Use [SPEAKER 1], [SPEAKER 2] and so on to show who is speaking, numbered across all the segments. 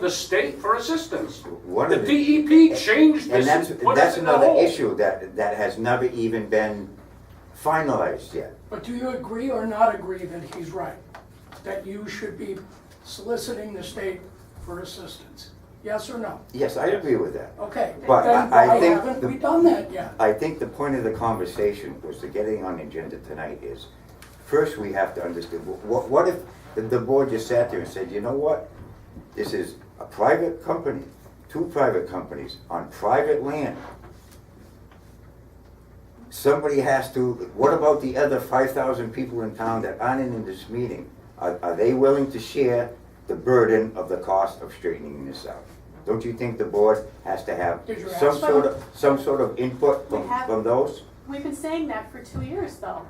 [SPEAKER 1] the state for assistance.
[SPEAKER 2] One
[SPEAKER 1] The
[SPEAKER 2] of
[SPEAKER 1] DEP changed
[SPEAKER 2] And
[SPEAKER 1] this
[SPEAKER 2] that's,
[SPEAKER 1] and put
[SPEAKER 2] that's
[SPEAKER 1] us in the
[SPEAKER 2] another
[SPEAKER 1] hole.
[SPEAKER 2] issue that, that has never even been finalized yet.
[SPEAKER 3] But do you agree or not agree that he's right? That you should be soliciting the state for assistance? Yes or no?
[SPEAKER 2] Yes, I agree with that.
[SPEAKER 3] Okay.
[SPEAKER 2] But
[SPEAKER 3] Then
[SPEAKER 2] I- I
[SPEAKER 3] why
[SPEAKER 2] think
[SPEAKER 3] haven't
[SPEAKER 2] the-
[SPEAKER 3] we done that yet?
[SPEAKER 2] I think the point of the conversation was to getting on the agenda tonight is, first we have to understand, wh- what, what if the, the board just sat there and said, you know what? This is a private company, two private companies on private land. Somebody has to, what about the other five thousand people in town that aren't in this meeting? Are, are they willing to share the burden of the cost of straightening this out? Don't you think the board has to have
[SPEAKER 3] Did you ask
[SPEAKER 2] some sort
[SPEAKER 4] them?
[SPEAKER 2] of, some sort of input
[SPEAKER 4] We
[SPEAKER 2] from,
[SPEAKER 4] have-
[SPEAKER 2] from those?
[SPEAKER 4] We've been saying that for two years, though.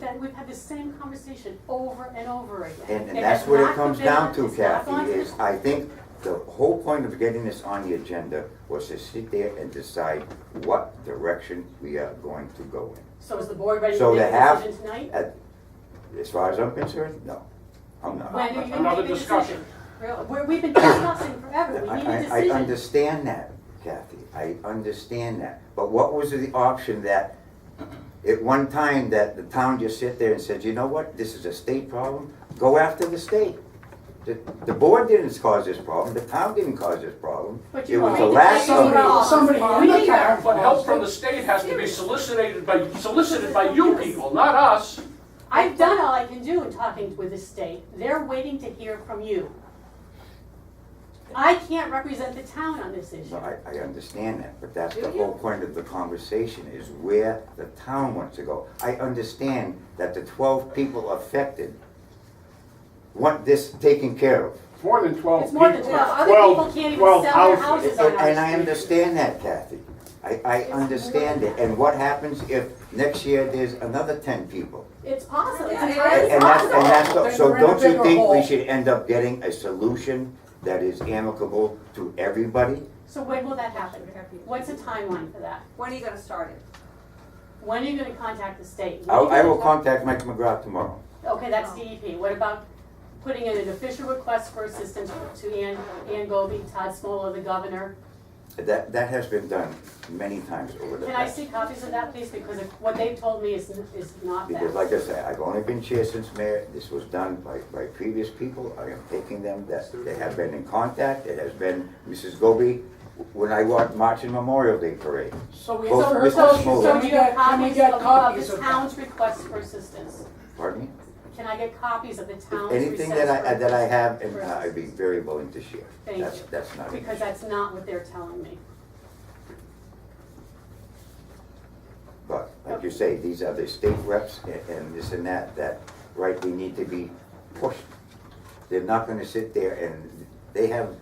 [SPEAKER 4] That we've had the same conversation over and over again.
[SPEAKER 2] And, and
[SPEAKER 4] It
[SPEAKER 2] that's
[SPEAKER 4] has
[SPEAKER 2] what it
[SPEAKER 4] not
[SPEAKER 2] comes
[SPEAKER 4] been-
[SPEAKER 2] down to,
[SPEAKER 4] it's not gone
[SPEAKER 2] Kathy, is I think the whole point of getting this on the agenda was to sit there and decide what direction we are going to go in.
[SPEAKER 4] So is the board ready to
[SPEAKER 2] So to
[SPEAKER 4] make a
[SPEAKER 2] have,
[SPEAKER 4] decision tonight?
[SPEAKER 2] at- as far as I'm concerned, no, I'm not.
[SPEAKER 4] When are you gonna
[SPEAKER 1] Another
[SPEAKER 4] make a
[SPEAKER 1] discussion.
[SPEAKER 4] decision? Real- Where we've been discussing forever, we need
[SPEAKER 2] I,
[SPEAKER 4] a
[SPEAKER 2] I, I
[SPEAKER 4] decision.
[SPEAKER 2] understand that, Kathy, I understand that, but what was the option that, at one time, that the town just sit there and said, you know what, this is a state problem, go after the state? The, the board didn't cause this problem, the town didn't cause this problem,
[SPEAKER 4] But
[SPEAKER 2] it
[SPEAKER 4] you
[SPEAKER 2] was the
[SPEAKER 4] agreed to
[SPEAKER 2] last
[SPEAKER 4] take it
[SPEAKER 2] of
[SPEAKER 4] wrong.
[SPEAKER 2] it.
[SPEAKER 3] Somebody, somebody in the town.
[SPEAKER 1] But help from the state has to be solicited by, solicited by you people, not us.
[SPEAKER 4] I've done all I can do in talking with the state. They're waiting to hear from you. I can't represent the town on this issue.
[SPEAKER 2] No, I, I understand that, but that's the
[SPEAKER 4] Do
[SPEAKER 2] whole
[SPEAKER 4] you?
[SPEAKER 2] point of the conversation, is where the town wants to go. I understand that the twelve people affected want this taken care of.
[SPEAKER 5] It's more than twelve
[SPEAKER 4] It's
[SPEAKER 5] people.
[SPEAKER 4] more than 12. Other people can't even
[SPEAKER 5] 12
[SPEAKER 4] sell their
[SPEAKER 5] houses.
[SPEAKER 4] houses.
[SPEAKER 2] And
[SPEAKER 4] on our
[SPEAKER 2] and I
[SPEAKER 4] street.
[SPEAKER 2] understand that, Kathy. I, I
[SPEAKER 4] It's
[SPEAKER 2] understand it. And what happens if next year there's another ten people?
[SPEAKER 4] It's possible. It's
[SPEAKER 3] Yeah, it
[SPEAKER 4] entirely
[SPEAKER 2] And and that's,
[SPEAKER 4] possible.
[SPEAKER 2] and that's,
[SPEAKER 3] Then
[SPEAKER 2] so
[SPEAKER 3] we're in a
[SPEAKER 2] don't you
[SPEAKER 3] bigger
[SPEAKER 2] think we
[SPEAKER 3] hole.
[SPEAKER 2] should end up getting a solution that is amicable to everybody?
[SPEAKER 4] So when will that happen? What's the timeline for that?
[SPEAKER 6] When are you gonna start it?
[SPEAKER 4] When are you gonna contact the state?
[SPEAKER 2] I, I will
[SPEAKER 4] When are you gonna
[SPEAKER 2] contact Mike McGrath tomorrow.
[SPEAKER 4] Okay, that's DEP. What about putting in an official request for assistance to Ann, Ann Goby, Todd Smola, the governor?
[SPEAKER 2] That, that has been done many times over the
[SPEAKER 4] Can I
[SPEAKER 2] past.
[SPEAKER 4] see copies of that, please? Because if- what they told me is, is not
[SPEAKER 2] Because
[SPEAKER 4] that.
[SPEAKER 2] like I said, I've only been chair since mayor, this was done by, by previous people, I am taking them, that they have been in contact, it has been Mrs. Goby, when I walked marching Memorial Day parade.
[SPEAKER 3] So we
[SPEAKER 2] Both
[SPEAKER 3] have
[SPEAKER 2] Mr.
[SPEAKER 3] her
[SPEAKER 4] So,
[SPEAKER 2] Mrs.
[SPEAKER 3] question,
[SPEAKER 2] Smola.
[SPEAKER 4] so
[SPEAKER 3] can
[SPEAKER 4] do
[SPEAKER 3] we
[SPEAKER 4] you have
[SPEAKER 3] get, can we
[SPEAKER 4] copies
[SPEAKER 3] get
[SPEAKER 4] of
[SPEAKER 3] copies
[SPEAKER 4] of
[SPEAKER 3] of
[SPEAKER 4] the
[SPEAKER 3] that?
[SPEAKER 4] town's request for assistance?
[SPEAKER 2] Pardon me?
[SPEAKER 4] Can I get copies of the town's request?
[SPEAKER 2] Anything that I, that I have, and uh,
[SPEAKER 4] for
[SPEAKER 2] I'd be
[SPEAKER 4] assistance?
[SPEAKER 2] very willing to share.
[SPEAKER 4] Thank
[SPEAKER 2] That's,
[SPEAKER 4] you.
[SPEAKER 2] that's not an
[SPEAKER 4] Because
[SPEAKER 2] issue.
[SPEAKER 4] that's not what they're telling me.
[SPEAKER 2] But, like you say, these are the state reps a- and this and that, that rightly need to be pushed. They're not gonna sit there and, they have,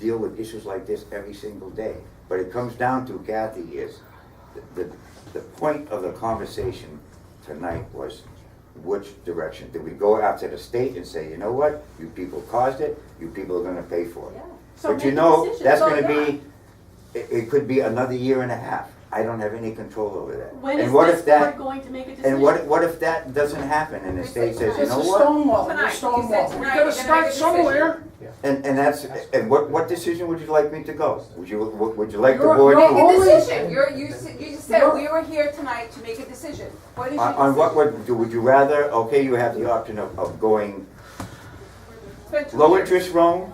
[SPEAKER 2] deal with issues like this every single day. But it comes down to, Kathy, is the, the- the point of the conversation tonight was which direction? Do we go out to the state and say, you know what, you people caused it, you people are gonna pay for it?
[SPEAKER 4] Yeah. So
[SPEAKER 2] But you
[SPEAKER 4] make a
[SPEAKER 2] know,
[SPEAKER 4] decision.
[SPEAKER 2] that's
[SPEAKER 4] So,
[SPEAKER 2] gonna
[SPEAKER 4] yeah.
[SPEAKER 2] be, it, it could be another year and a half. I don't have any control over that.
[SPEAKER 4] When
[SPEAKER 2] And
[SPEAKER 4] is
[SPEAKER 2] what
[SPEAKER 4] this
[SPEAKER 2] if that-
[SPEAKER 4] board going to make a decision?
[SPEAKER 2] And what, what if that doesn't happen and the state says, you
[SPEAKER 3] It's
[SPEAKER 2] know
[SPEAKER 3] a
[SPEAKER 2] what?
[SPEAKER 3] stonewall,
[SPEAKER 6] Tonight.
[SPEAKER 3] it's a
[SPEAKER 6] He said
[SPEAKER 3] stonewall.
[SPEAKER 1] We
[SPEAKER 6] tonight
[SPEAKER 1] gotta
[SPEAKER 6] you're gonna make
[SPEAKER 1] start
[SPEAKER 6] a decision.
[SPEAKER 1] somewhere.
[SPEAKER 2] And, and that's, and what, what decision would you like me to go? Would you, would would you like the
[SPEAKER 3] You're-
[SPEAKER 2] board to?
[SPEAKER 3] you're
[SPEAKER 6] Make a
[SPEAKER 3] Only-
[SPEAKER 6] decision, you're, you, s- you just said
[SPEAKER 3] You're-
[SPEAKER 6] we were here tonight to make a decision. What is your
[SPEAKER 2] On, on what
[SPEAKER 6] decision?
[SPEAKER 2] would, do- would you rather, okay, you have the option of, of going
[SPEAKER 6] It's been two
[SPEAKER 2] low
[SPEAKER 6] years.
[SPEAKER 2] interest loan?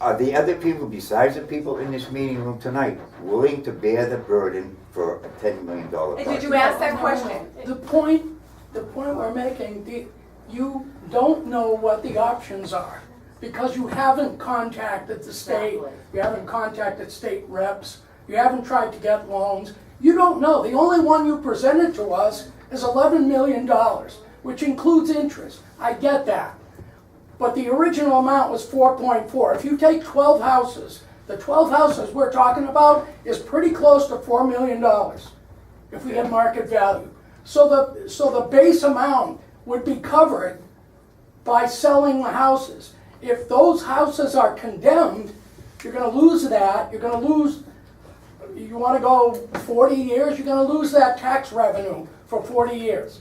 [SPEAKER 2] Are the other people besides the people in this meeting room tonight willing to bear the burden for a ten million dollar
[SPEAKER 6] And
[SPEAKER 2] project?
[SPEAKER 6] did you ask that question?
[SPEAKER 3] The point, the point we're making, the, you don't know what the options are, because you haven't contacted the state,
[SPEAKER 4] Exactly.
[SPEAKER 3] you haven't contacted state reps, you haven't tried to get loans, you don't know. The only one you presented to us is eleven million dollars, which includes interest, I get that. But the original amount was four point four. If you take twelve houses, the twelve houses we're talking about is pretty close to four million dollars if we had market value. So the, so the base amount would be covered by selling the houses. If those houses are condemned, you're gonna lose that, you're gonna lose, you wanna go forty years, you're gonna lose that tax revenue for forty years.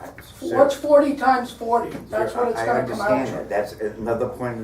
[SPEAKER 2] I- sir,
[SPEAKER 3] What's forty times forty? That's
[SPEAKER 2] sir,
[SPEAKER 3] what it's
[SPEAKER 2] I-
[SPEAKER 3] gonna come out to.
[SPEAKER 2] I understand that, that's another point